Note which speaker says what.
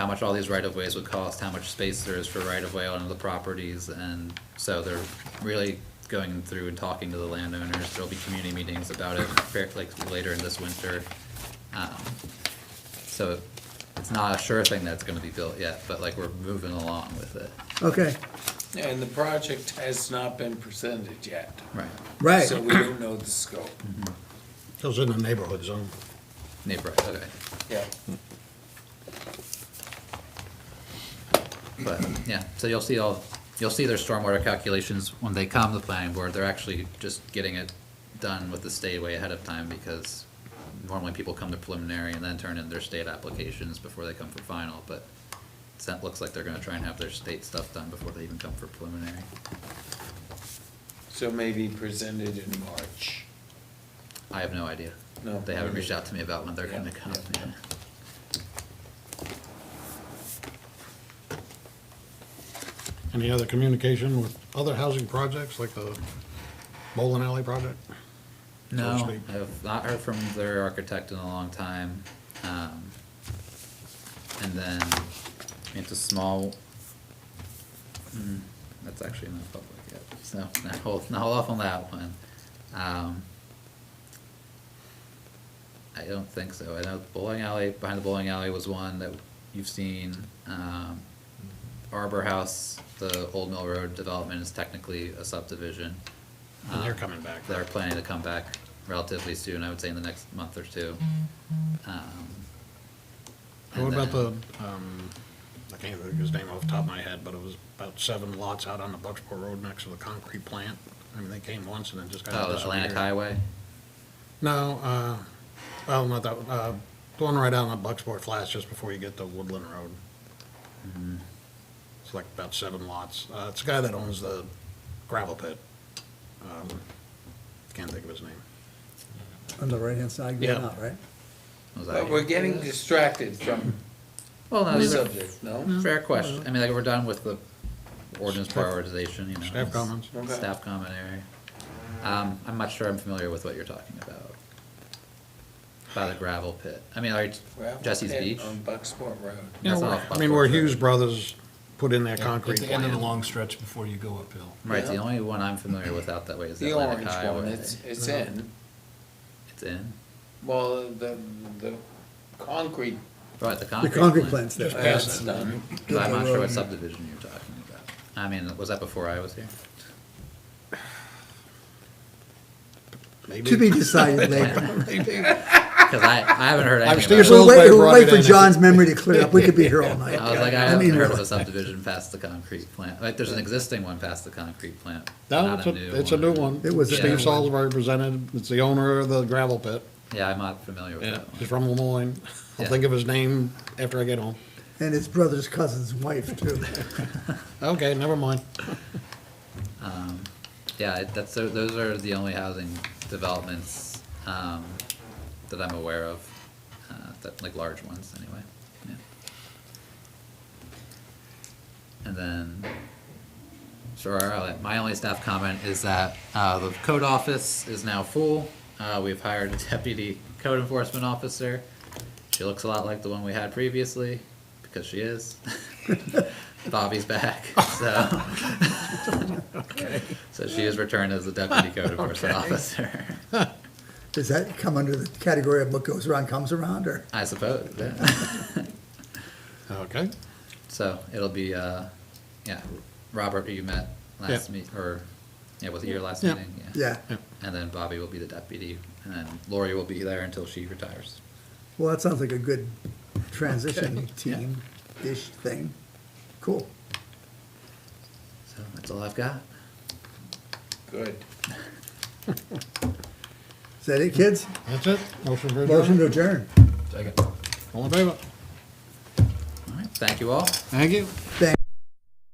Speaker 1: how much all these right-of-ways would cost, how much space there is for right-of-way on the properties, and so they're really going through and talking to the landowners, there'll be community meetings about it, fair- like, later in this winter. Um, So it's not a sure thing that's gonna be built yet, but like, we're moving along with it,
Speaker 2: Okay,
Speaker 3: And the project has not been presented yet.
Speaker 1: right,
Speaker 2: right.
Speaker 3: So we don't know the scope.
Speaker 4: Those in the neighborhood zone.
Speaker 1: neighbor, okay,
Speaker 3: Yeah.
Speaker 1: but, yeah, so you'll see all, you'll see their stormwater calculations when they come to the planning board, they're actually just getting it done with the state way ahead of time, because normally people come to preliminary and then turn in their state applications before they come for final, but it looks like they're gonna try and have their state stuff done before they even come for preliminary.
Speaker 3: So maybe presented in March.
Speaker 1: I have no idea.
Speaker 3: No.
Speaker 1: They haven't reached out to me about when they're gonna
Speaker 3: Yeah,
Speaker 1: come.
Speaker 3: yeah, yeah.
Speaker 4: Any other communication with other housing projects like the bowling alley project?
Speaker 1: No,
Speaker 4: Sweet.
Speaker 1: I've not heard from their architect in a long time. Um, And then it's a small, mm, that's actually not public yet, so now hold, now hold off on that one. Um, I don't think so. I know the bowling alley, behind the bowling alley was one that you've seen. Um, Arbor House, the Old Mill Road development is technically a subdivision.
Speaker 4: And they're
Speaker 1: Um,
Speaker 4: coming back.
Speaker 1: They're planning to come back relatively soon, I would say in the next month or two. Um, and
Speaker 4: What about the,
Speaker 1: then-
Speaker 4: um, I can't think of his name off the top of my head, but it was about seven lots out on the Bucksport Road next to the concrete plant. I mean, they came once and then just got
Speaker 1: Oh, the Atlantic
Speaker 4: disappeared.
Speaker 1: Highway?
Speaker 4: No, uh, well, not that, one, uh, the one right out on Bucksport Flats just before you get to Woodland Road. It's like about seven lots. Uh, it's a guy that owns the gravel pit. Um, Can't think of his name.
Speaker 2: On the right-hand side, going
Speaker 4: Yeah.
Speaker 2: out, right?
Speaker 1: Was that
Speaker 3: But
Speaker 1: you?
Speaker 3: we're getting distracted from
Speaker 1: Well, no,
Speaker 3: the
Speaker 1: these are
Speaker 3: subject, no?
Speaker 1: fair question. I mean, like, we're done with the ordinance
Speaker 4: Staff-
Speaker 1: prioritization, you know.
Speaker 4: staff
Speaker 1: it's-
Speaker 4: comments.
Speaker 3: Okay.
Speaker 1: Staff comment area. Um, I'm not sure I'm familiar with what you're talking about. By the gravel pit. I mean, are you,
Speaker 3: Gravel
Speaker 1: Jesse's
Speaker 3: pit um,
Speaker 1: Beach?
Speaker 3: On Bucksport Road.
Speaker 4: Yeah,
Speaker 1: That's
Speaker 4: we're-
Speaker 1: off
Speaker 4: I mean, where
Speaker 1: Bucksport Road.
Speaker 4: Hughes Brothers put in their concrete
Speaker 5: At the end of the
Speaker 4: plant.
Speaker 5: long stretch before you go uphill.
Speaker 1: Right, the
Speaker 3: Yeah.
Speaker 1: only one I'm familiar with out that way is the
Speaker 3: The
Speaker 1: Atlantic
Speaker 3: orange
Speaker 1: Highway.
Speaker 3: one, it's, it's in,
Speaker 1: It's in,
Speaker 3: well, the, the concrete,
Speaker 1: right, the
Speaker 2: The
Speaker 1: concrete plant.
Speaker 2: concrete plant's there.
Speaker 3: that's done.
Speaker 1: Cause I'm not sure what
Speaker 2: Yeah.
Speaker 1: subdivision you're talking about. I mean, was that before I was here?
Speaker 4: Maybe.
Speaker 2: To be decided later.
Speaker 1: Cause I, I haven't heard
Speaker 4: I'm
Speaker 1: anything about
Speaker 4: still-
Speaker 1: it.
Speaker 2: We'll wait,
Speaker 4: Little bit
Speaker 2: we'll wait for
Speaker 4: right in.
Speaker 2: John's memory to clear up. We could be here all night.
Speaker 1: I was like, I
Speaker 2: I
Speaker 1: haven't
Speaker 2: mean,
Speaker 1: heard of
Speaker 2: really.
Speaker 1: a subdivision past the concrete plant. Like, there's an existing one past the concrete plant. but
Speaker 4: No,
Speaker 1: not
Speaker 4: it's a, it's a new one.
Speaker 2: It was a
Speaker 4: Steve
Speaker 2: new one.
Speaker 4: Salisbury presented, it's the owner of the gravel pit.
Speaker 1: Yeah, I'm not familiar with that
Speaker 4: He's
Speaker 1: one.
Speaker 4: from Lemoyne. I'll
Speaker 1: Yeah.
Speaker 4: think of his name after I get home.
Speaker 2: And his brother's cousin's wife, too.
Speaker 4: Okay, never mind.
Speaker 1: Yeah, it- that's, tho- those are the only housing developments, um, that I'm aware of, uh, that, like, large ones, anyway, yeah. And then, sure, I'll- my only staff comment is that, uh, the code office is now full. Uh, we've hired a deputy code enforcement officer. She looks a lot like the one we had previously, because she is. Bobby's back, so. So she is returned as the deputy code enforcement officer,
Speaker 2: Does that come under the category of what goes around comes around, or?
Speaker 1: I suppose, yeah.
Speaker 4: Okay.
Speaker 1: So it'll be, uh, yeah, Robert, who you met last
Speaker 4: Yeah.
Speaker 1: meet, or, yeah, was it your last
Speaker 4: Yeah.
Speaker 1: meeting?
Speaker 2: Yeah.
Speaker 4: Yeah.
Speaker 1: And then Bobby will be the deputy, and then Lori will be there until she retires.
Speaker 2: Well, that sounds like a good transition team-ish thing. Cool.
Speaker 1: So that's all I've got.
Speaker 3: Good.
Speaker 2: Is that it, kids?
Speaker 4: That's it. Motion for
Speaker 2: Motion
Speaker 4: adjournment.
Speaker 2: to adjourn.
Speaker 4: All in favor?
Speaker 1: All right, thank you all.
Speaker 4: Thank you.
Speaker 2: Thank